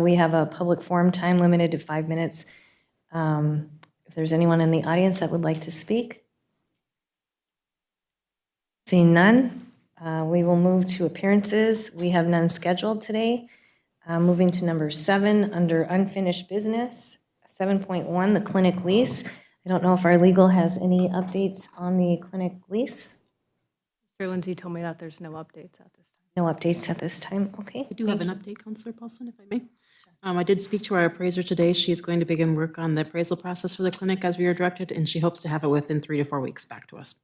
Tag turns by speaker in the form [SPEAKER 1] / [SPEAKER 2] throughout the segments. [SPEAKER 1] We have a public forum time limited to five minutes. Um, If there's anyone in the audience that would like to speak? Seeing none, uh, we will move to appearances. We have none scheduled today. Uh, Moving to number seven, under unfinished business, 7.1, the clinic lease. I don't know if our legal has any updates on the clinic lease.
[SPEAKER 2] Mr. Lindsay told me that there's no updates at this time.
[SPEAKER 1] No updates at this time, okay?
[SPEAKER 3] I do have an update, Counselor Paulson, if I may. Um, I did speak to our appraiser today. She is going to begin work on the appraisal process for the clinic as we were directed, and she hopes to have it within three to four weeks back to us.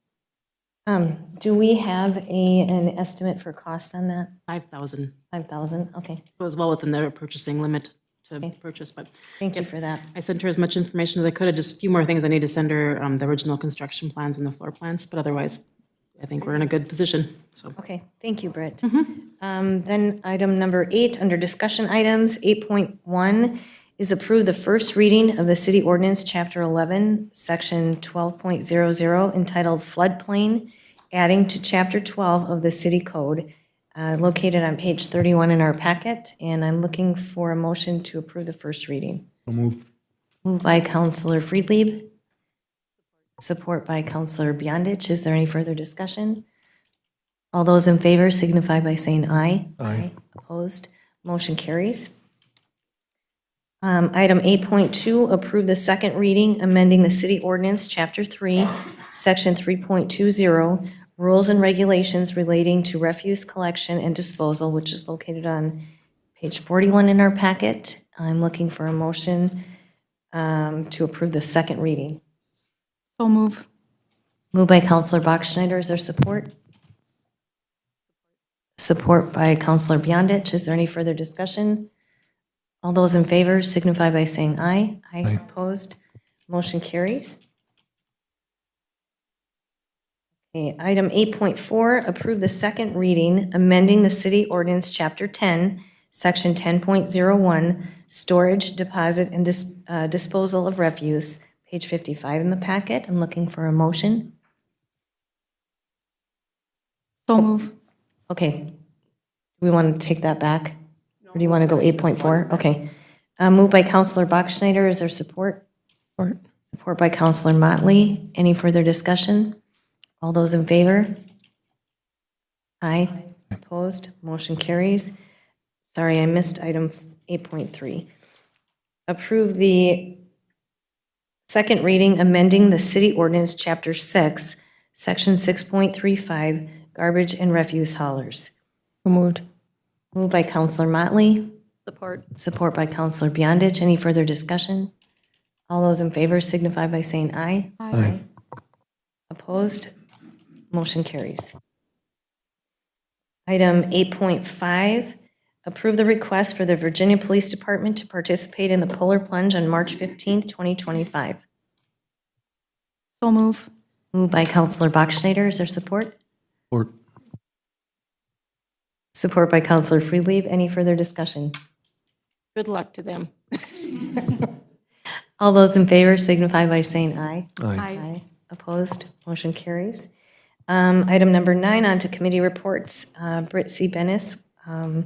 [SPEAKER 1] Um, Do we have a, an estimate for cost on that?
[SPEAKER 3] Five thousand
[SPEAKER 1] 5,000, okay.
[SPEAKER 3] was well within their purchasing limit to purchase, but
[SPEAKER 1] Thank you for that.
[SPEAKER 3] I sent her as much information as I could. Just a few more things I need to send her, um, the original construction plans and the floor plans, but otherwise, I think we're in a good position, so.
[SPEAKER 1] Okay, thank you, Britt. Um, Then item number eight, under discussion items, 8.1 is approve the first reading of the city ordinance, Chapter 11, Section 12.00, entitled floodplain, adding to Chapter 12 of the city code, uh, located on page 31 in our packet, and I'm looking for a motion to approve the first reading. Moved by Counselor Friedlieb, support by Counselor Beyondich. Is there any further discussion? All those in favor signify by saying aye. Aye. Opposed? Motion carries. Um, Item 8.2, approve the second reading, amending the city ordinance, Chapter 3, Section 3.20, rules and regulations relating to refuse collection and disposal, which is located on page 41 in our packet. I'm looking for a motion um, to approve the second reading.
[SPEAKER 2] So move.
[SPEAKER 1] Moved by Counselor Bachschnider, is there support? Support by Counselor Beyondich, is there any further discussion? All those in favor signify by saying aye. Aye. Opposed, motion carries. Okay, item 8.4, approve the second reading, amending the city ordinance, Chapter 10, Section 10.01, storage, deposit, and dis- uh, disposal of refuse, page 55 in the packet. I'm looking for a motion.
[SPEAKER 2] So move.
[SPEAKER 1] Okay. We want to take that back? Or do you want to go 8.4? Okay. Uh, Moved by Counselor Bachschnider, is there support? Support. Support by Counselor Motley. Any further discussion? All those in favor? Aye. Opposed? Motion carries. Sorry, I missed item 8.3. Approve the Second reading, amending the city ordinance, Chapter 6, Section 6.35, garbage and refuse haulers. Moved. Moved by Counselor Motley,
[SPEAKER 2] Support.
[SPEAKER 1] support by Counselor Beyondich. Any further discussion? All those in favor signify by saying aye. Aye. Opposed? Motion carries. Item 8.5, approve the request for the Virginia Police Department to participate in the Polar Plunge on March 15th, 2025.
[SPEAKER 2] So move.
[SPEAKER 1] Moved by Counselor Bachschnider, is there support?
[SPEAKER 4] Or
[SPEAKER 1] Support by Counselor Freelieve, any further discussion?
[SPEAKER 2] Good luck to them.
[SPEAKER 1] All those in favor signify by saying aye.
[SPEAKER 4] Aye.
[SPEAKER 1] Aye. Opposed, motion carries. Um, Item number nine, on to committee reports. Uh, Britt C. Bennis um,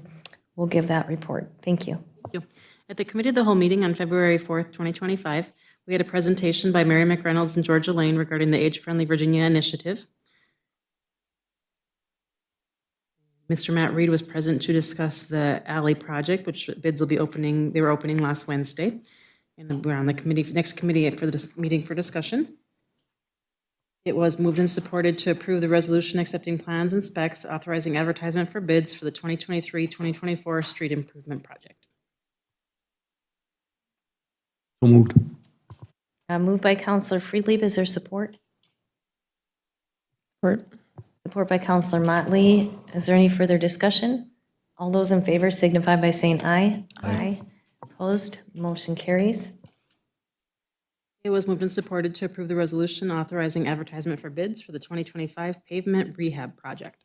[SPEAKER 1] will give that report. Thank you.
[SPEAKER 3] Thank you. At the Committee of the Whole meeting on February 4th, 2025, we had a presentation by Mary McReynolds and Georgia Lane regarding the Age Friendly Virginia Initiative. Mr. Matt Reed was present to discuss the alley project, which bids will be opening, they were opening last Wednesday. And we're on the committee, next committee for this meeting for discussion. It was moved and supported to approve the resolution accepting plans and specs authorizing advertisement for bids for the 2023-2024 street improvement project.
[SPEAKER 4] So moved.
[SPEAKER 1] Uh, Moved by Counselor Freelieve, is there support? Support. Support by Counselor Motley. Is there any further discussion? All those in favor signify by saying aye. Aye. Opposed, motion carries.
[SPEAKER 3] It was moved and supported to approve the resolution authorizing advertisement for bids for the 2025 pavement rehab project.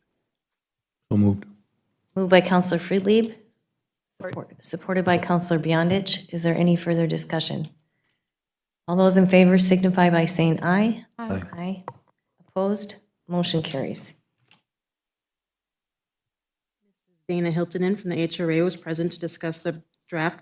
[SPEAKER 4] So moved.
[SPEAKER 1] Moved by Counselor Freelieb. Support- Supported by Counselor Beyondich. Is there any further discussion? All those in favor signify by saying aye.
[SPEAKER 4] Aye.
[SPEAKER 1] Aye. Opposed, motion carries.
[SPEAKER 3] Dana Hiltonen from the HRA was present to discuss the draft